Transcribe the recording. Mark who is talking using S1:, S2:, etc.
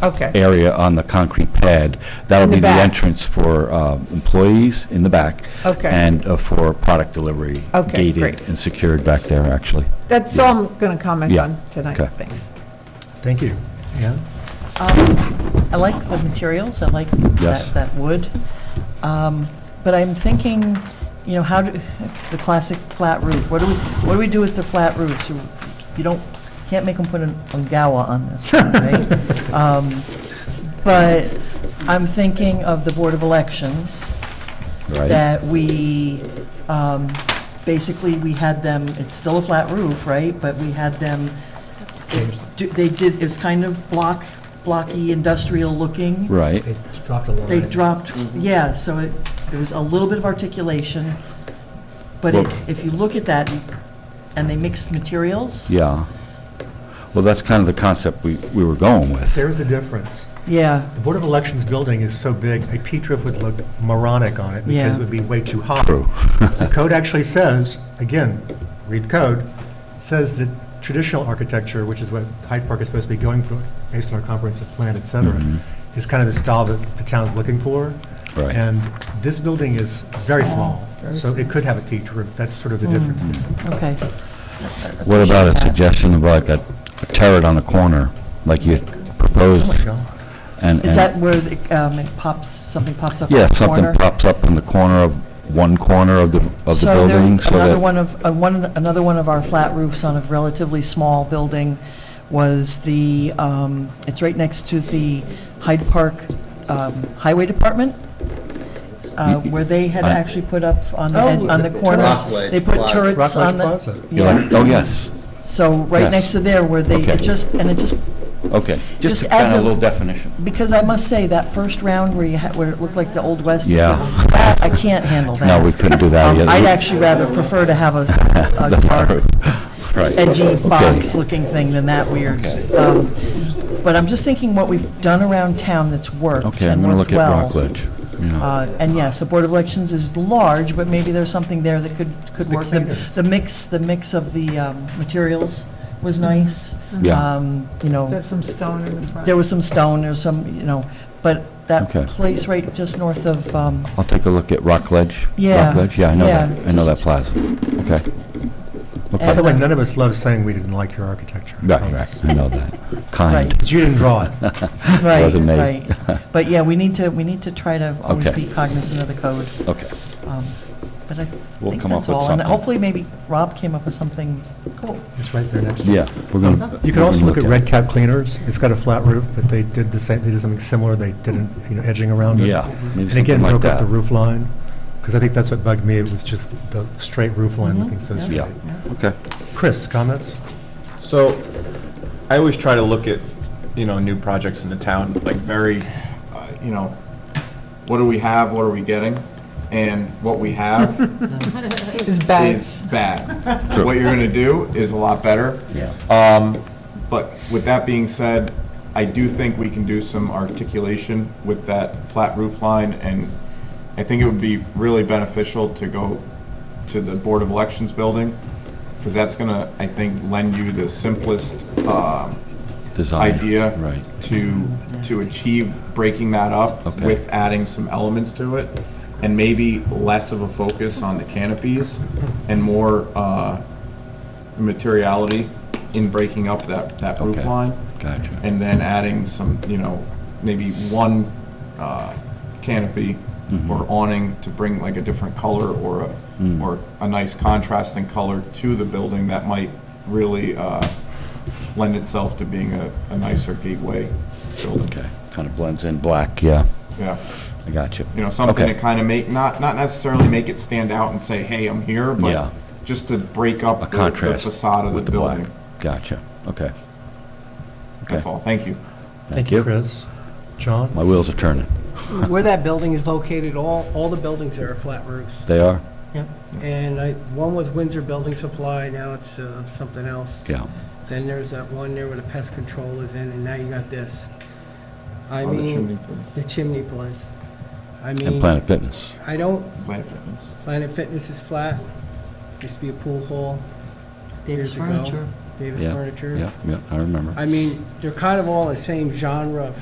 S1: Okay.
S2: area on the concrete pad. That'll
S1: In the
S2: be the
S1: back.
S2: entrance for uh, employees in the back.
S1: Okay.
S2: And uh, for product delivery.
S1: Okay, great.
S2: Gated and secured back there, actually.
S1: That's all I'm going to comment
S2: Yeah,
S1: on tonight.
S2: okay.
S1: Thanks.
S3: Thank you. Yeah.
S4: I like the materials, I like
S2: Yes.
S4: that, that wood. Um, But I'm thinking, you know, how do, the classic flat roof, what do we, what do we do with the flat roofs? You- You don't, can't make them put an Ongawa on this one, right? Um, But I'm thinking of the Board of Elections
S2: Right?
S4: that we, um, basically, we had them, it's still a flat roof, right? But we had them, do- they did, it was kind of block, blocky, industrial looking.
S2: Right.
S3: They dropped a line.
S4: They dropped,
S2: Mm-hmm.
S4: yeah, so it, there was a little bit of articulation. But
S2: Well-
S4: it- if you look at that, and they mixed materials,
S2: Yeah. Well, that's kind of the concept we we were going with.
S3: There is a difference.
S4: yeah,
S3: The Board of Elections building is so big, a peat roof would look moronic on it because
S4: Yeah.
S3: it would be way too high.
S2: True.
S3: The code actually says, again, read the code, says that traditional architecture, which is what Hyde Park is supposed to be going for, based on our comprehensive plan, et cetera,
S2: Mhm.
S3: is kind of the style that the town's looking for.
S2: Right.
S3: And this building is very small,
S4: very
S3: so it could have a peat roof. That's sort of the difference.
S2: Mm-hmm.
S3: there.
S4: okay.
S2: What about a suggestion of like a a turret on the corner, like you
S3: Oh
S2: proposed?
S3: my God.
S2: and- and-
S4: Is that where the, um, it pops, something pops up in the
S2: Yeah,
S4: corner?
S2: something pops up in the corner of, one corner of the, of the building,
S4: So
S2: so
S4: there, another
S2: that,
S4: one of, uh, one, another one of our flat roofs on a relatively small building was the, um, it's right next to the Hyde Park um, Highway Department, uh,
S2: Mm-hmm.
S4: where they had
S2: I-
S4: actually put up on the,
S1: Oh,
S4: ed- on the
S1: the
S4: corners.
S5: Rockledge
S4: They put
S5: Plaza.
S4: turrets
S3: Rockledge
S4: on the.
S3: Plaza.
S2: you're like, oh, yes,
S4: So right
S2: Yes.
S4: next to there where they,
S2: Okay.
S4: it just, and it just
S2: okay. Just
S4: Just
S2: to kind
S4: adds
S2: of
S4: a-
S2: a little definition.
S4: Because I must say, that first round where you had, where it looked like the Old West.
S2: Yeah.
S4: That, I can't handle that.
S2: No, we couldn't do that
S4: Um,
S2: either.
S4: I'd actually rather prefer to have a, a dark,
S2: Right.
S4: edgy
S2: Okay.
S4: box-looking thing than that weird. Um, But I'm just thinking what we've done around town that's worked and worked
S2: Okay,
S4: well.
S2: I'm gonna look at Rockledge, yeah.
S4: Uh, And yes, the Board of Elections is large, but maybe there's something there that could, could
S3: The
S4: work. The-
S3: cleaners.
S4: The mix, the mix of the um, materials was nice.
S2: Yeah.
S4: Um, You know.
S1: There's some stone in the front.
S4: There was some stone or some, you know, but that
S2: Okay.
S4: place right just north of, um,
S2: I'll take a look at Rockledge.
S4: Yeah,
S2: Rockledge, yeah, I know
S4: yeah,
S2: that, I know that
S4: just-
S2: plaza, okay.
S3: By the
S2: Okay,
S3: way, none of us love saying we didn't like your architecture.
S2: right, right, I know that, kind,
S4: Right.
S3: But you didn't draw it.
S4: right,
S2: Wasn't me.
S4: right. But yeah, we need to, we need to try to always
S2: Okay.
S4: be cognizant of the code.
S2: okay.
S4: um, But I
S2: We'll
S4: think
S2: come up
S4: that's
S2: with
S4: all. And
S2: something.
S4: hopefully, maybe Rob came up with something cool.
S3: It's right there next to it.
S2: Yeah, we're
S4: Uh-huh.
S2: gonna.
S3: You
S2: we're
S3: could also
S2: gonna
S3: look at Red
S2: it.
S3: Cap Cleaners. It's got a flat roof, but they did the same, they did something similar. They did an, you know, edging around it.
S2: Yeah, maybe
S3: And again,
S2: something like
S3: broke
S2: that.
S3: up the roof line, because I think that's what bugged me. It was just the straight roof line
S4: Mhm,
S3: looking so
S4: yeah.
S3: straight.
S2: Yeah, okay,
S3: Chris, comments?
S5: So, I always try to look at, you know, new projects in the town, like very, uh, you know, what do we have, what are we getting? And what we have
S1: It's bad.
S5: is bad. What you're gonna do is a lot better.
S2: Yeah.
S5: Um, but with that being said, I do think we can do some articulation with that flat roof line, and I think it would be really beneficial to go to the Board of Elections building, because that's gonna, I think, lend you the simplest, um,
S2: design.
S5: idea
S2: Right,
S5: to, to achieve breaking that up
S2: Okay.
S5: with adding some elements to it, and maybe less of a focus on the canopies and more uh, materiality in breaking up that, that roof
S2: Okay.
S5: line,
S2: gotcha.
S5: and then adding some, you know, maybe one uh, canopy
S2: Mm-hmm.
S5: or awning to bring like a different color or
S2: Mm.
S5: a, or a nice contrasting color to the building that might really uh, lend itself to being a, a nicer gateway building.
S2: Okay, kind of blends in black, yeah,
S5: Yeah,
S2: I got you.
S5: you know, something
S2: Okay.
S5: to kind of make, not, not necessarily make it stand out and say, hey, I'm here,
S2: Yeah.
S5: but just to break
S2: A
S5: up the- the
S2: contrast
S5: facade of
S2: with
S5: the
S2: the black.
S5: building.
S2: Gotcha, okay.
S5: That's all, thank you.
S2: Thank you.
S3: Chris. John?
S2: My wheels are turning.
S6: Where that building is located, all, all the buildings there are flat roofs.
S2: They are?
S6: And I, one was Windsor Building Supply, now it's uh, something else.
S2: Yeah.
S6: Then there's that one there where the pest control is in, and now you got this. I
S5: On the chimney
S6: mean,
S5: place.
S6: the chimney place. I
S2: And
S6: mean,
S2: Planet Fitness.
S6: I don't,
S5: Planet Fitness.
S6: Planet Fitness is flat, used to be a pool hall years ago. Davis
S2: Yeah,
S6: Furniture.
S2: Yeah, yeah, I remember.
S6: I mean, they're kind of all the same genre of